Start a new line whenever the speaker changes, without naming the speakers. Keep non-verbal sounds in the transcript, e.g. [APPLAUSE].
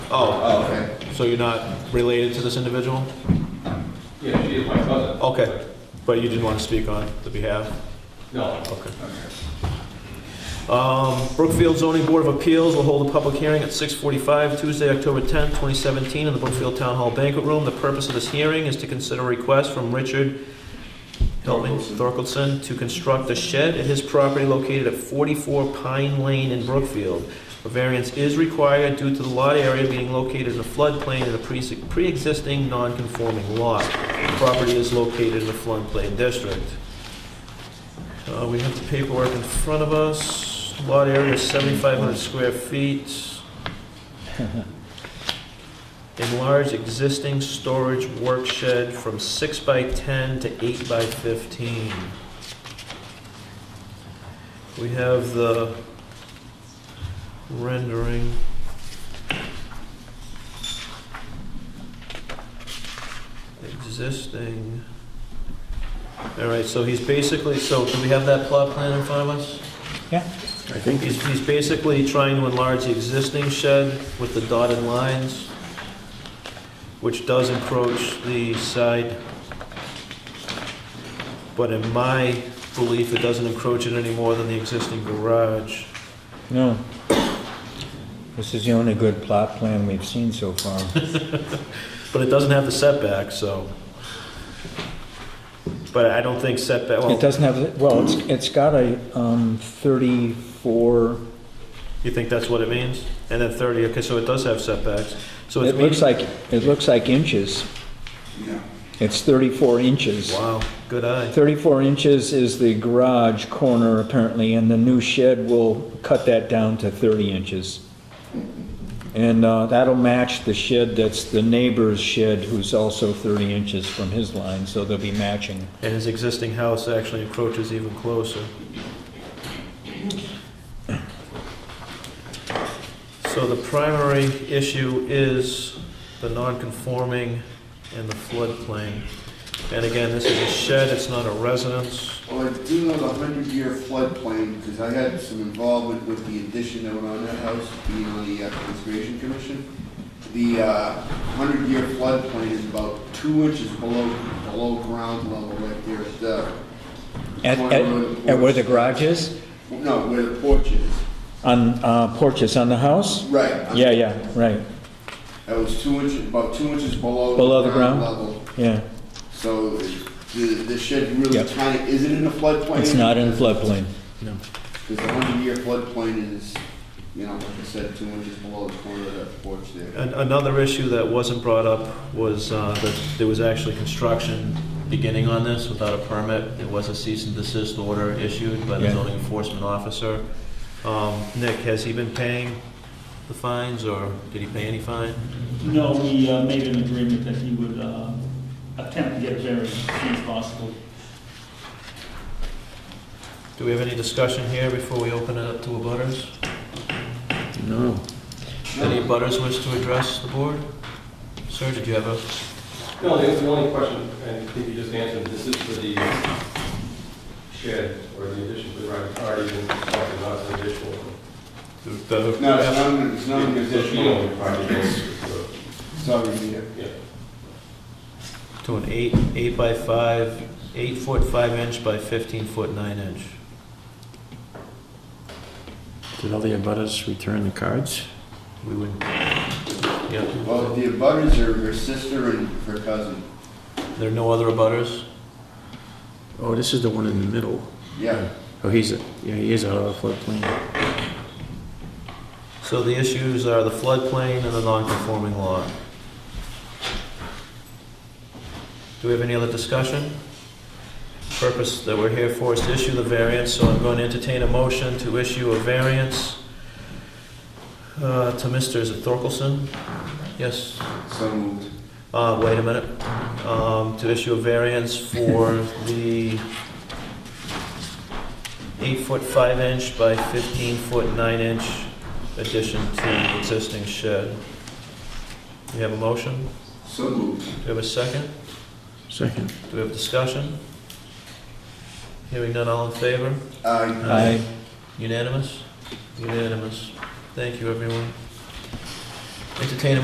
Oh,
okay.
so you're not related to this individual?
Yeah, she is my cousin.
Okay, but you didn't want to speak on the behalf?
No.
Okay. Um, Brookfield Zoning Board of Appeals will hold a public hearing at 6:45 Tuesday, October 10, 2017, in the Brookfield Town Hall Banquet Room. The purpose of this hearing is to consider a request from Richard, help me, Thorkelson, to construct a shed at his property located at 44 Pine Lane in Brookfield. A variance is required due to the lot area being located in a floodplain in a pre- pre-existing non-conforming lot. The Property is located in the floodplain district. Uh, We have the paperwork in front of us. Lot area is 7,500 square feet. [LAUGHS] Enlarge existing storage work shed from 6 by 10 to 8 by 15. We have the rendering. Existing. All right, so he's basically, so do we have that plot plan in front of us?
I think
He's, he's basically trying to enlarge the existing shed with the dotted lines, which does encroach the side. But in my belief, it doesn't encroach it any more than the existing garage.
No. This is the only good plot plan we've seen so far.
But it doesn't have the setback, so. But I don't think setback,
It
well,
doesn't have, well, it's, it's got a um, 34,
you think that's what it means? And then 30, okay, so it does have setbacks. So it's
it looks
meeting-
like, it looks like inches.
Yeah.
It's 34 inches.
Wow, good eye.
34 inches is the garage corner apparently, and the new shed will cut that down to 30 inches. And uh, that'll match the shed that's the neighbor's shed, who's also 30 inches from his line, so they'll be matching.
And his existing house actually encroaches even closer. So the primary issue is the non-conforming and the floodplain. And again, this is a shed, it's not a residence.
Well, I do know the hundred-year floodplain, because I had some involvement with the addition that went on that house, being on the uh, Conservation Commission. The uh, hundred-year floodplain is about two inches below, below ground level right there at the,
At, at, at where the garage is?
no, where the porch is.
On, uh, porches on the house?
Right.
Yeah, yeah, right,
That was two inches, about two inches below.
Below the ground?
Level.
yeah.
So the, the shed really
Yep.
kind of, is it in the floodplain?
It's not in floodplain. No.
Because the hundred-year floodplain is, you know, like I said, two inches below the corner of that porch there.
An- Another issue that wasn't brought up was uh, that there was actually construction beginning on this without a permit. It was a cease and desist order issued by the
Yeah.
zoning enforcement officer. Um, Nick, has he been paying the fines, or did he pay any fine?
No, we uh, made an agreement that he would uh, attempt to get a variance as soon as possible.
Do we have any discussion here before we open it up to abutters?
No.
Any abutters wish to address the board? Sir, did you have a,
No, the the only question, and I think you just answered, this is for the shed or the addition to the right party, and talking about the additional.
the-
No, it's not, it's not an
So she
additional,
only party is, uh,
sorry, here.
yeah.
to an eight, eight by five, eight foot five inch by 15 foot nine inch?
Did all the abutters return the cards?
We would, yeah.
Well, the abutters are her sister and her cousin.
There are no other abutters?
Oh, this is the one in the middle.
Yeah,
Oh, he's, a- yeah, he is out of the floodplain.
So the issues are the floodplain and the non-conforming lot. Do we have any other discussion? Purpose that we're here for is to issue the variance, so I'm going to entertain a motion to issue a variance uh, to Mr. is it Thorkelson? Yes,
so moved.
uh, wait a minute, um, to issue a variance for the eight foot five inch by fifteen foot nine inch addition to the existing shed. Do you have a motion?
So moved.
Do you have a second?
Second.
Do we have discussion? Hearing none, all in favor?
Uh,
I,
Unanimous? Unanimous. Thank you, everyone. Entertain a